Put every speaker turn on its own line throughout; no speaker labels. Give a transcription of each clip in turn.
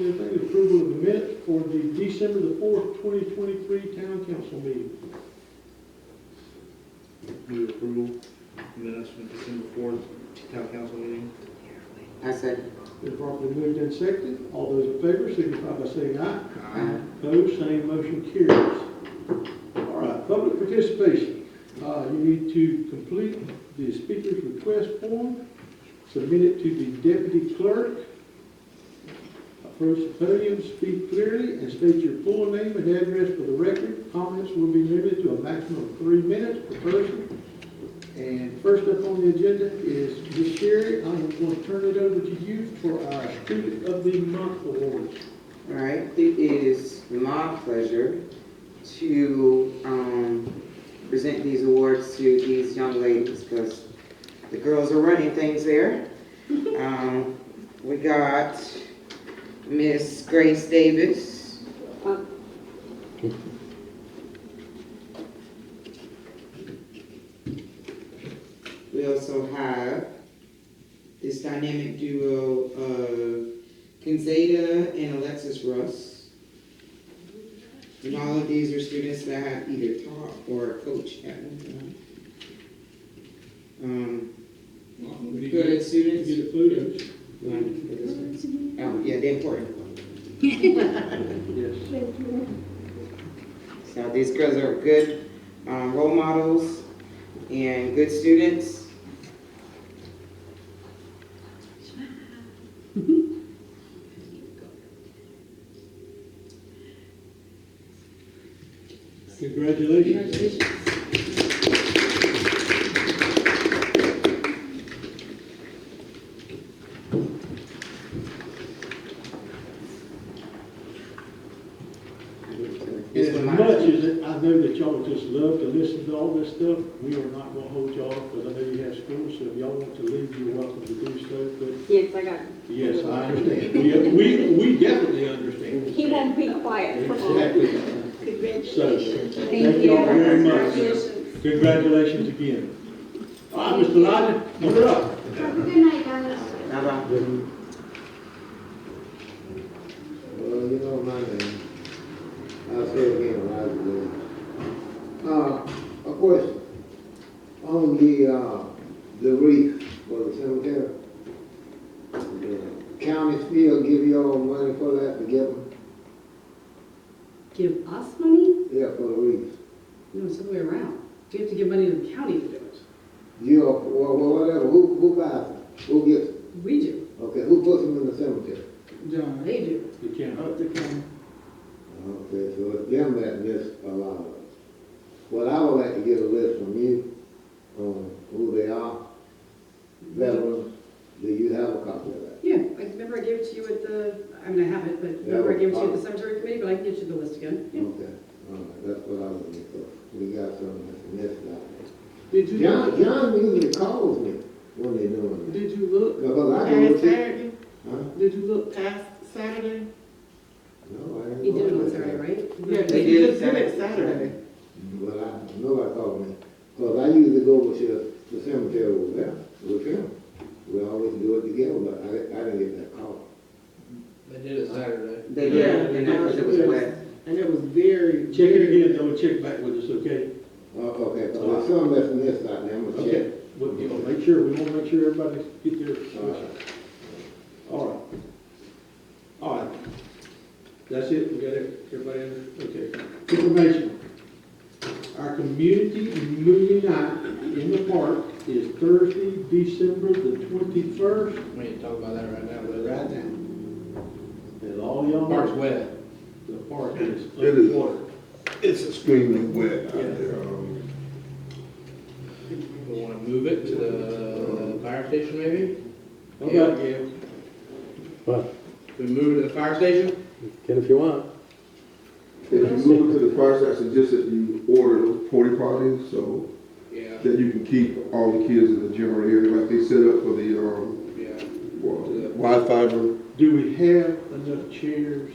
approval of the minutes for the December the fourth, twenty twenty-three town council meeting.
Move approval, minutes from December fourth, town council meeting.
I second.
Been properly moved and seconded. All those in favor signify by saying aye.
Aye.
Opposed, same motion carries. All right, public participation. Uh, you need to complete the speaker's request form, submit it to the deputy clerk, approach the podium, speak clearly, and state your full name and address for the record. Comments will be limited to a maximum of three minutes per person. And first up on the agenda is Ms. Sherry. I'm going to turn it over to you for our Student of the Month awards.
All right, it is my pleasure to um, present these awards to these young ladies because the girls are running things there. Um, We got Miss Grace Davis. We also have this dynamic duo of Kinzada and Alexis Russ. And all of these are students that have either taught or coached at one time. Um, good
You
students.
get a photo?
Oh, yeah, the important one.
Yes.
So these girls are good um, role models and good students.
Congratulations.
This
As
one
much
might-
as I know that y'all just love to listen to all this stuff, we are not gonna hold y'all, because I know you have school, so if y'all want to leave, you're welcome to do so,
Yes, I got
but yes, I understand. We, we, we definitely understand.
He won't be quiet for long.
Exactly. So,
Congratulations.
thank y'all very much. Congratulations again. All right, Mr. Lodge, you're up.
Have a good night, guys.
Bye-bye.
Well, you know my name. I'll say it again, Roger Williams. Uh, a question. On the, uh, the reef for the cemetery. the County still give y'all money for that to get them?
Give us money?
Yeah, for the reef.
No, it's the other way around. We have to give money to the county to do it.
You, or, or whatever, who, who buys them? Who gets them?
We do.
Okay, who puts them in the cemetery?
They do.
You can.
Okay, so it's them that disallow it. Well, I would like to get a list from you on who they are, veterans. Do you have a copy of that?
Yeah, I remember I gave it to you at the, I mean, I have it, but remember I gave it to you at the cemetery committee, but I can get you the list again. Yeah.
Okay, all right, that's what I was looking for. We got some that's missed out.
Did
John, John usually calls me when they doing it.
Did you look
Because I
past
don't see.
Saturday?
Huh?
Did you look past Saturday?
No, I didn't.
You did it
know
on
that.
Saturday, right?
Yeah,
They
did you
did
just do it
Saturday.
Saturday?
Well, I know I called me. Because I usually go with you, the cemetery over there, with him. We always do it together, but I, I didn't get that call.
They did it Saturday.
They did, and that was, it was wet.
And it was very,
Check it
very.
again, though, and check back with us, okay?
Oh, okay, so there's some that's missed out there, I'm gonna
Okay,
check.
we'll, you know, make sure, we wanna make sure everybody get their, all right. All right. That's it, we got it, everybody, under- okay. Information. Our community movie night in the park is Thursday, December the twenty-first,
We ain't talking about that right now, but
right now. And all y'all,
Park's
know,
wet.
the park is
It is.
underwater.
It's extremely wet out there. um,
We wanna move it to the fire station maybe?
How about
Yeah.
What?
We move it to the fire station?
Get if you want.
If you move it to the fire station, just if you order those porta potties, so
Yeah,
that you can keep all the kids in the general area, like they set up for the, um,
yeah.
wi- Wi-Fi room.
Do we have enough chairs?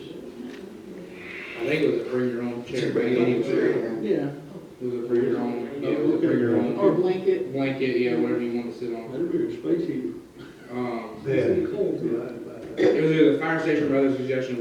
I think it was a bring your own chair, but anyway,
Yeah,
it was a bring your own, yeah, it was a
Okay.
bring your
or
own
blanket.
blanket, yeah, whatever you wanna sit on.
That'd be a space heater.
Um,
It's cold.
it was either the fire station or other suggestion